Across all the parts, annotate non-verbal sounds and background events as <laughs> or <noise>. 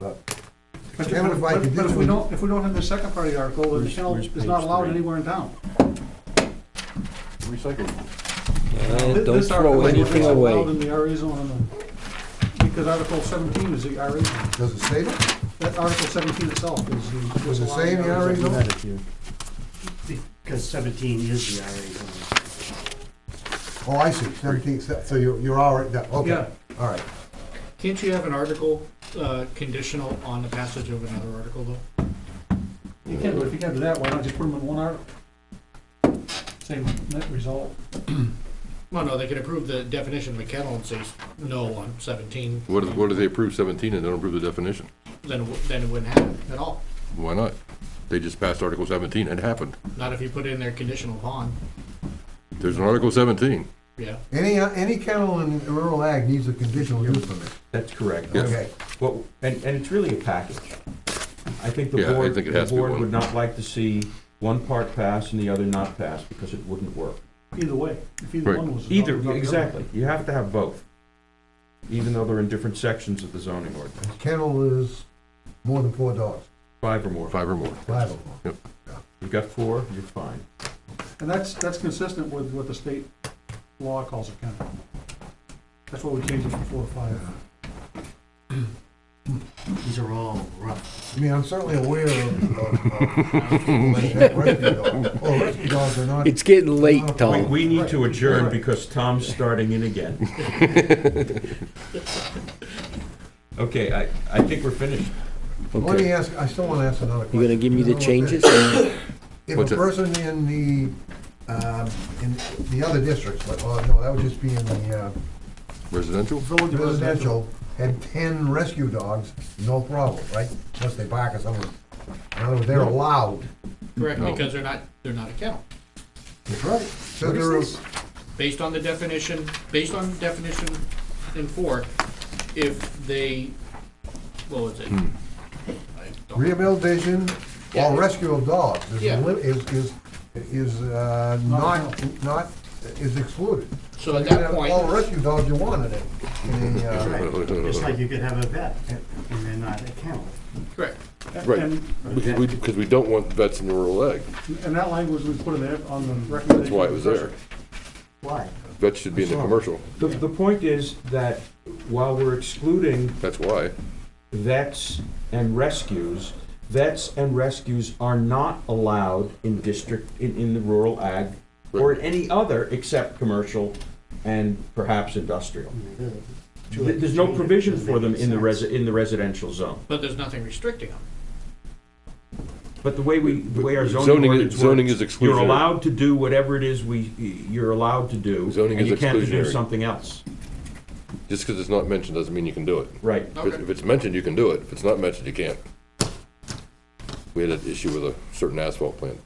But Chairman, if I but- could But if do- we don't, if we don't have the second party article, the shell where's is not page allowed three? anywhere in town. Recycle. Uh, Thi- Don't this article throw is anything allowed away. in the RA zone, on the- because Article seventeen is the RA, zone. Does it say that? that Article seventeen itself is the. Does it allowed say in the RA zone. zone? Because seventeen is the RA zone. Oh, I see, seventeen, so so you're, you're all right, that- okay, Yeah. all right. Can't you have an article uh, conditional on the passage of another article, though? You can, but if you can do that, why not just put them in one article? Same net result. Well, no, they can approve the definition of a kennel and say no on 17, What if, what if they approve seventeen and don't approve the definition? then, it wou- then it wouldn't happen at all. Why not? They just passed Article seventeen, it happened. Not if you put in there conditional upon, There's an Article seventeen. yeah. Any, uh, any kennel in rural ag needs a conditional use permit, That's correct. Yeah. okay? Well, and, and it's really a package. I think the Yeah, I board, think it the has to be board one. would not like to see one part pass and the other not pass, because it wouldn't work. Either way, if either Right. one was. Either, adopted, not the other. exactly, you have to have both, even though they're in different sections of the zoning ordinance, Kennel is more than four dogs, five or more. Five or more. five of them. You've got four, you're fine. And that's, that's consistent with what the state law calls a kennel. That's why we changed it from four to five. <clears throat> These are all rough. I mean, I'm certainly aware of, of, of rescue dogs. Well, rescue dogs are not, It's getting late, We, Tom. we need to adjourn because Tom's starting in again. <laughs> Okay, I, I think we're finished. let me Okay. ask, I still wanna ask another question. You gonna give me You the know what that- changes? If What's a it? person in the, um, in the other districts, like, oh, no, that would just be in the, uh, Residential? Village of residential had ten rescue dogs, no problem, right? Unless they bark at someone. In other words, they're allowed. Correct, No. because they're not, they're not a kennel. That's right. So they're, Based on the definition, based on definition in four, if they, what was it? Hmm. I don't- rehabilitation Yeah. or rescue of dogs is, Yeah. li- is, is, is, uh, not, not, is excluded. So at You can that have point, All rescue dogs you want in it. in a, uh, Right, just like you could have a vet, and they're not a kennel. correct. Right. And, Because we, because we don't want vets in rural ag. and that language we put in there on the recommendation. That's why it was there. Why? Vets should be in the commercial. The, the point is that while we're excluding That's why. vets and rescues, vets and rescues are not allowed in district, in, in the rural ag or in any other except commercial and perhaps industrial. Th- There's no provision for them in the resi, in the residential zone. But there's nothing restricting them. But the way we, the way our Zoning zoning is- ordinance works. zoning is You're exclusionary. allowed to do whatever it is we, you're allowed to do. Zoning and is You can't do exclusionary. something else. Just because it's not mentioned doesn't mean you can do it. Right. If it's- if it's mentioned, you can do it. If it's not mentioned, you can't. We had an issue with a certain asphalt plant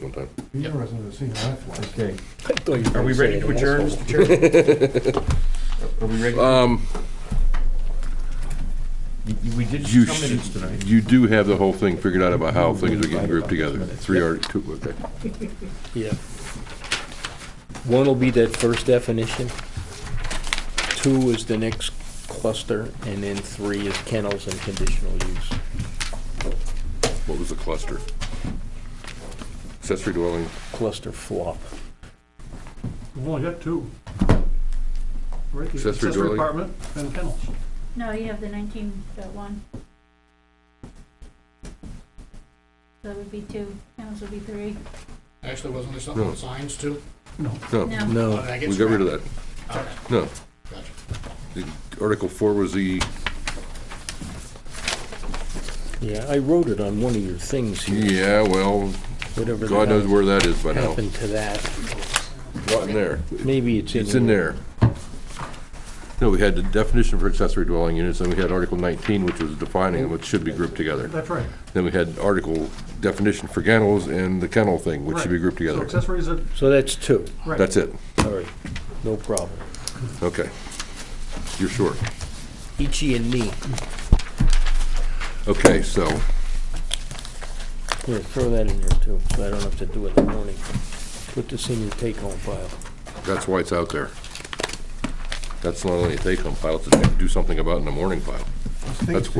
one time. Be interesting to see how that flies. Okay. Thought you were Are we gonna ready say to an adjourn, asshole. Mr. Chairman? <laughs> Are we ready? Um, You- you- We did you, some minutes tonight. you do have the whole thing figured out about how things are getting grouped together. Three art, two, okay. Yeah. One will be that first definition. Two is the next cluster, and then three is kennels and conditional use. What was the cluster? Accessory dwelling, Cluster flop. We've only got two. Right, the Accessory accessory dwelling. apartment and kennels. No, you have the nineteen dot one. So that would be two, kennels would be three. Actually, wasn't there something No. on signs too? no, No, Oh, No, did I get we got rid of scrapped? that. All right, No, gotcha. the Article four was the, yeah, I wrote it on one of your things here, yeah, well, whatever the God knows hell where that is by now. happened to that. Not in there. Maybe it's in. It's in here. there. No, we had the definition for accessory dwelling units, and we had Article nineteen, which was defining what should be grouped together. That's right. Then we had article definition for kennels and the kennel thing, which should be Right. grouped So together. accessories are, So that's two. right. That's it. All right, no problem. Okay. You're sure. Ichi and me. Okay, so Here, throw that in there too, so I don't have to do it in the morning. Put this in your take-home file. that's why it's out there. That's not only a take-home file, it's a do something about in the morning file. That's